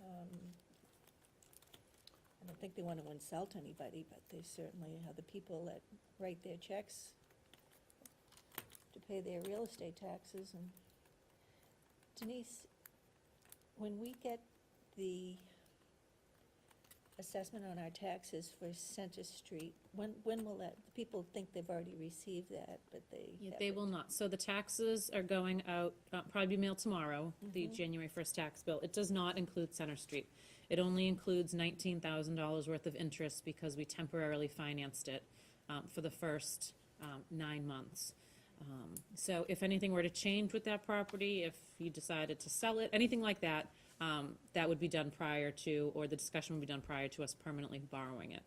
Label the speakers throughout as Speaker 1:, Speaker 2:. Speaker 1: Um, don't think they want to insult anybody, but they certainly are the people that write their checks to pay their real estate taxes and Denise, when we get the assessment on our taxes for Center Street, when, when will that, people think they've already received that, but they.
Speaker 2: Yeah, They
Speaker 1: haven't.
Speaker 2: will not. So the taxes are going out, uh, probably be mailed tomorrow, the
Speaker 1: Mhm.
Speaker 2: January first tax bill. It does not include Center Street. It only includes nineteen thousand dollars worth of interest because we temporarily financed it, um, for the first, um, nine months. Um, so if anything were to change with that property, if you decided to sell it, anything like that, um, that would be done prior to, or the discussion would be done prior to us permanently borrowing it.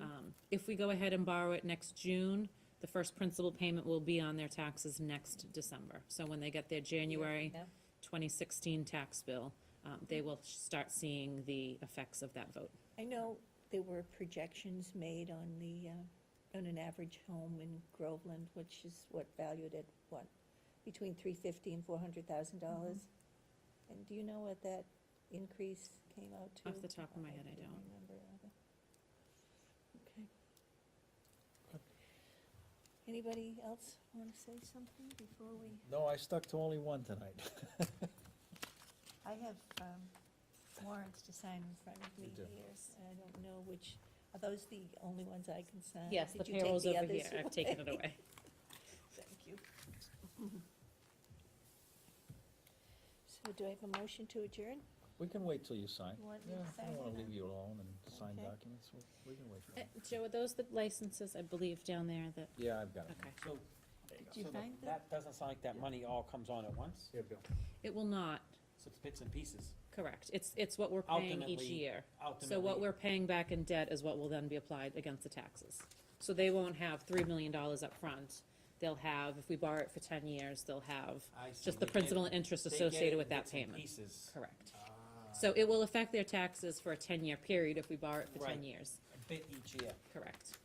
Speaker 2: Um, If we go ahead and borrow it next June, the first principal payment will be on their taxes next December. So when they get their January
Speaker 1: Yeah.
Speaker 2: 2016 tax bill, um, they will start seeing the effects of that vote.
Speaker 1: I know there were projections made on the, uh, on an average home in Groveland, which is what valued at what? Between three fifty and four hundred thousand
Speaker 2: Mm-hmm.
Speaker 1: dollars? And do you know what that increase came out to?
Speaker 2: Off the top of my head, I don't.
Speaker 1: remember either. Okay. Anybody else want to say something before we?
Speaker 3: No, I stuck to only one tonight.
Speaker 1: I have um, warrants to sign in front of me
Speaker 3: You do.
Speaker 1: here. I don't know which, are those the only ones I can sign?
Speaker 2: Uh, Yes, the
Speaker 1: Did you take
Speaker 2: payroll's
Speaker 1: the
Speaker 2: over
Speaker 1: others
Speaker 2: here. I've taken it away.
Speaker 1: Thank you. So do I have a motion to adjourn?
Speaker 3: We can wait till you sign.
Speaker 1: You want me
Speaker 3: Yeah,
Speaker 1: to
Speaker 3: I
Speaker 1: sign
Speaker 3: don't wanna
Speaker 1: it?
Speaker 3: leave you alone and sign
Speaker 1: Okay. Eh.
Speaker 3: documents, we we can wait for
Speaker 2: Uh,
Speaker 3: you.
Speaker 2: Joe, are those the licenses, I believe, down there that,
Speaker 3: Yeah, I've got it.
Speaker 2: okay.
Speaker 4: So,
Speaker 1: you
Speaker 4: so the-
Speaker 1: find them?
Speaker 4: that doesn't sound like that money all comes on at once,
Speaker 3: Here, Bill.
Speaker 2: It will not,
Speaker 4: so it's bits and pieces.
Speaker 2: correct. It's, it's what we're paying each
Speaker 4: Ultimately,
Speaker 2: year. So what
Speaker 4: Ultimately,
Speaker 2: we're paying back in debt is what will then be applied against the taxes. So they won't have three million dollars up front. They'll have, if we borrow it for ten years, they'll have
Speaker 4: I see,
Speaker 2: just the
Speaker 4: they get-
Speaker 2: principal and interest
Speaker 4: they get
Speaker 2: associated
Speaker 4: it
Speaker 2: with
Speaker 4: in
Speaker 2: that
Speaker 4: bits and
Speaker 2: payment.
Speaker 4: Pieces.
Speaker 2: Correct.
Speaker 4: Ah,
Speaker 2: So it will affect their taxes for a ten-year period if we borrow it for
Speaker 4: Right.
Speaker 2: ten years.
Speaker 4: A bit each year,
Speaker 2: Correct.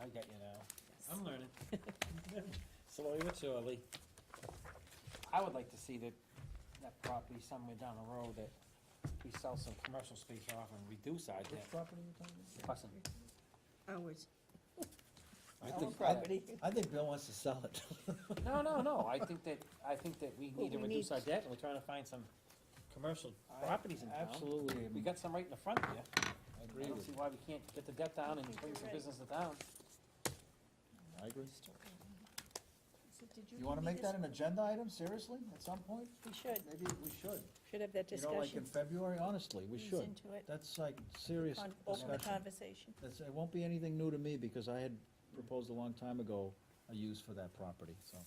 Speaker 4: I get you now,
Speaker 2: Yes.
Speaker 4: I'm learning. Slowly but surely. I would like to see that, that property somewhere down the road that we sell some commercial space off and reduce our
Speaker 3: Which
Speaker 4: debt.
Speaker 3: property are you talking
Speaker 4: Plus,
Speaker 1: Ours.
Speaker 3: about? I
Speaker 4: Our
Speaker 3: think- I-
Speaker 4: property.
Speaker 3: I think Bill wants to sell it.
Speaker 4: No, no, no, I think that, I think that we
Speaker 1: Well,
Speaker 4: need to
Speaker 1: we
Speaker 4: reduce
Speaker 1: need-
Speaker 4: our debt, and we're trying to find some commercial
Speaker 3: I
Speaker 4: properties in town.
Speaker 3: Absolutely,
Speaker 4: We
Speaker 3: am-
Speaker 4: got some right in the front here.
Speaker 3: I
Speaker 4: I
Speaker 3: agree
Speaker 4: don't
Speaker 3: with
Speaker 4: see
Speaker 3: you.
Speaker 4: why we can't get the debt down and
Speaker 1: I think
Speaker 4: bring
Speaker 1: you're
Speaker 4: some
Speaker 1: right.
Speaker 4: business to town.
Speaker 3: I agree.
Speaker 1: So did
Speaker 3: You wanna
Speaker 1: give me
Speaker 3: make that
Speaker 1: this?
Speaker 3: an agenda item, seriously, at some point?
Speaker 1: We should,
Speaker 3: Maybe we should.
Speaker 1: should have that
Speaker 3: You know, like in
Speaker 1: discussion.
Speaker 3: February, honestly, we
Speaker 1: Ease
Speaker 3: should.
Speaker 1: Into it,
Speaker 3: That's like serious
Speaker 1: on, open the
Speaker 3: discussion.
Speaker 1: conversation.
Speaker 3: That's, it won't be anything new to me, because I had proposed a long time ago a use for that property, so.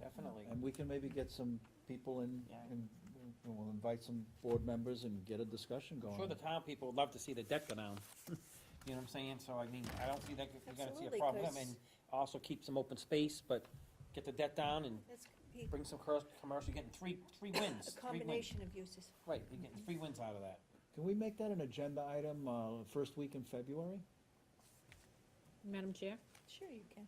Speaker 4: Definitely.
Speaker 3: And we can maybe get some people in,
Speaker 4: Yeah.
Speaker 3: and we'll invite some board members and get a discussion
Speaker 4: I'm sure
Speaker 3: going.
Speaker 4: the town people would love to see the debt go down. You know what I'm saying? So I mean, I don't see that, we're gonna see
Speaker 1: Absolutely,
Speaker 4: a problem.
Speaker 1: 'cause-
Speaker 4: And also keep some open space, but get the debt down and
Speaker 1: That's be
Speaker 4: bring some cur- commercial, you're getting three, three
Speaker 1: a
Speaker 4: wins. three wins.
Speaker 1: combination of uses.
Speaker 4: Right, you're getting three wins out of that.
Speaker 3: Can we make that an agenda item, uh, first week in February?
Speaker 2: Madam Chair?
Speaker 1: Sure you can.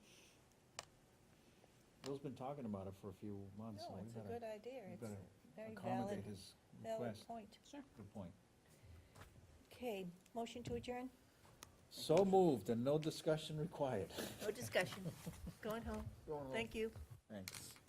Speaker 3: Bill's been talking about it for a few months, so
Speaker 1: No,
Speaker 3: we
Speaker 1: it's a
Speaker 3: better
Speaker 1: good idea.
Speaker 3: we
Speaker 1: It's
Speaker 3: better
Speaker 1: a very valid,
Speaker 3: accommodate his
Speaker 1: valid
Speaker 3: request.
Speaker 1: point.
Speaker 3: Good point.
Speaker 1: Okay, motion to adjourn?
Speaker 3: So moved, and no discussion required.
Speaker 1: No discussion. Going home. Thank you.
Speaker 3: Thanks.